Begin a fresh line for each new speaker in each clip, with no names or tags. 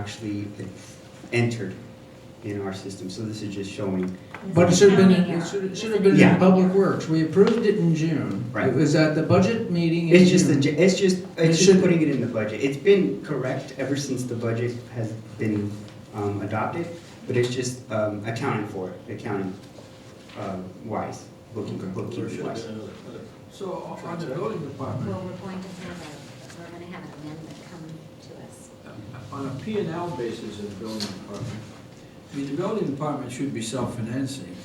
actually entered in our system. So this is just showing,
But it
It's
should have been,
accounting
it
error.
should, it
It's
should
an
have been
Yeah.
in Public Works, we approved it in June.
Right.
It was at the budget meeting in June.
it's just, the j- it's just,
It
it's just
should-
putting it in the budget. It's been correct ever since the budget has been um, adopted, but it's just um, accounting for it, accounting um, wise, booking, bookkeeping wise.
So on the building department,
Well, we're going to have a, we're gonna have an amendment come to us.
on a P and L basis of the building department, I mean, the building department should be self-financing.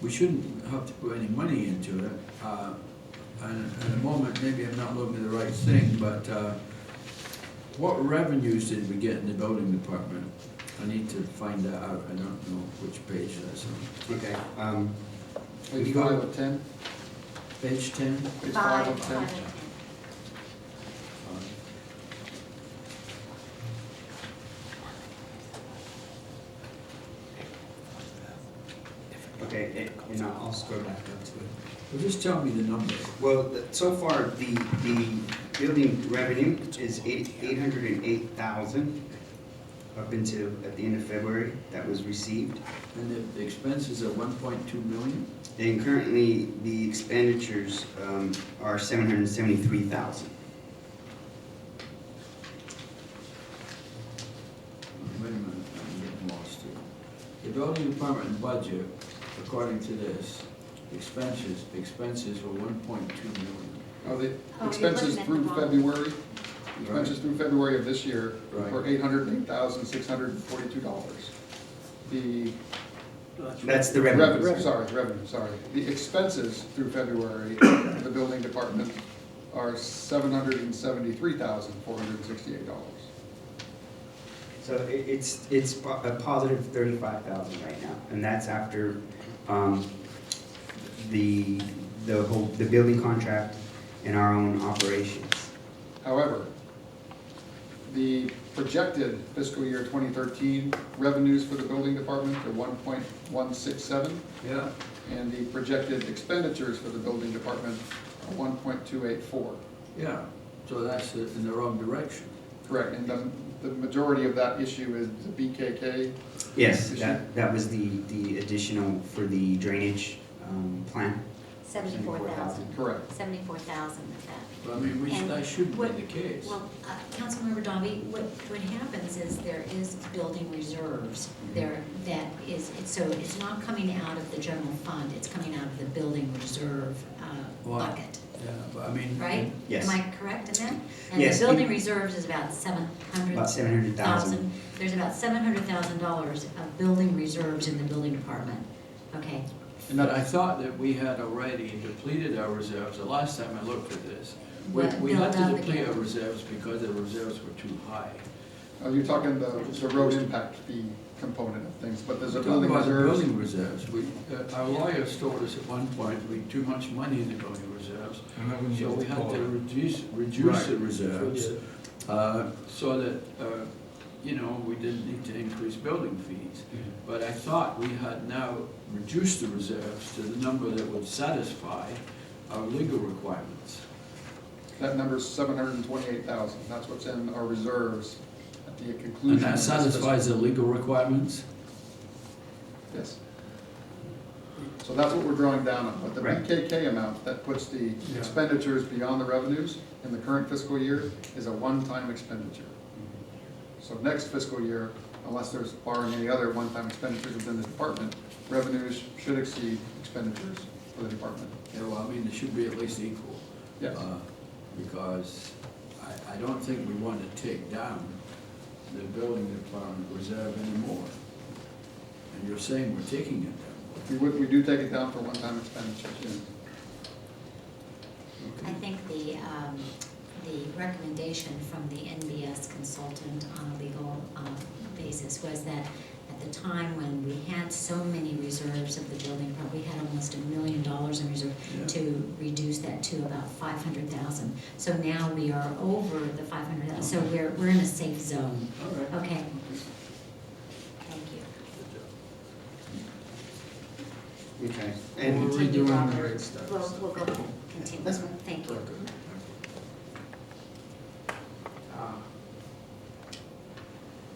We shouldn't have to put any money into it. Uh, And at the moment, maybe I'm not looking at the right thing, but uh, what revenues did we get in the building department? I need to find that out. I don't know which page that's on.
Okay, um,
Would you go to a ten?
Page ten?
It's five of ten.
Five of ten.
okay, it- and I'll I'll scroll back up to it.
Well, Just tell me the number.
Well, th- so far, the, the building revenue is eight, eight hundred and eight thousand up until, at the end of February, that was received.
And the expenses are one point two million?
And currently, the expenditures, um, are seven hundred and seventy-three thousand.
Wait a minute, I'm getting lost here. The building department budget, according to this, expenses, expenses were one point two million.
Oh, the
Oh,
expenses
you're
through
looking at the wrong-
February, expenses through February of this year
Right.
were eight hundred and eight thousand, six hundred and forty-two dollars. The
That's the revenue.
revenue, sorry, revenue, sorry. The expenses through February of the building department are seven hundred and seventy-three thousand, four hundred and sixty-eight dollars.
So i it's, it's po- a positive thirty-five thousand right now, and that's after, um, the, the whole, the building contract and our own operations.
However, the projected fiscal year twenty thirteen revenues for the building department are one point one six seven,
Yeah.
and the projected expenditures for the building department are one point two eight four.
Yeah, so that's in the wrong direction.
Correct, and the, the majority of that issue is the BKK.
Yes,
Is
that, that was the, the additional for the drainage, um, plan.
Seventy-four thousand.
Correct.
Seventy-four thousand of that.
But I mean, which
And
that shouldn't
what-
be the case.
Well, uh, Councilmember Dobby, what, what happens is there is building reserves there that is, it's- so it's not coming out of the general fund, it's coming out of the building reserve uh,
Wow.
bucket,
Yeah, but I mean.
mm-hmm.
right?
Yes.
Am I correct in that? And
Yes,
the
it-
building reserves is about seven hundred
About seven hundred thousand.
thousand, there's about seven hundred thousand dollars of building reserves in the building department. Okay,
But I thought that we had already depleted our reserves, the last time I looked at this. We,
But
we
built
had to
up
deplete our
again.
reserves because the reserves were too high.
Uh, You're talking the, the road impact fee component of things, but there's a
We're talking
building
about the
reserves.
building reserves, we, uh, our lawyers told us at one point, we had too much money in the building reserves, so we had to reduce, reduce the reserves, uh, so that, uh, you know, we didn't need to increase building fees. But I thought we had now reduced the reserves to the number that would satisfy our legal requirements.
That number's seven hundred and twenty-eight thousand, that's what's in our reserves at the conclusion.
And that
of this
satisfies the legal requirements?
fiscal- Yes. So that's what we're drawing down on, but the
Right.
BKK amount that puts the
Yeah.
expenditures beyond the revenues in the current fiscal year is a one-time expenditure. So next fiscal year, unless there's barring any other one-time expenditures within the department, revenues should exceed expenditures for the department.
Yeah, well, I mean, it should be at least equal.
Yes.
uh, Because I, I don't think we want to take down the building department reserve anymore. And you're saying we're taking it
We would, we do take it down for one-time expenditures, yes.
I think the, um, the recommendation from the NBS consultant on a legal, um, basis was that at the time when we had so many reserves of the building, fund, we had almost a million dollars in reserve
Yeah.
to reduce that to about five hundred thousand. So now we are over the five hundred thousand, so we're, we're in a safe zone.
down. All right.
Okay. Thank you.
Okay.
Well,
And
we're redoing the
Robert.
rate studies.
We'll, we'll go ahead, continue.
That's fine.
Thank you.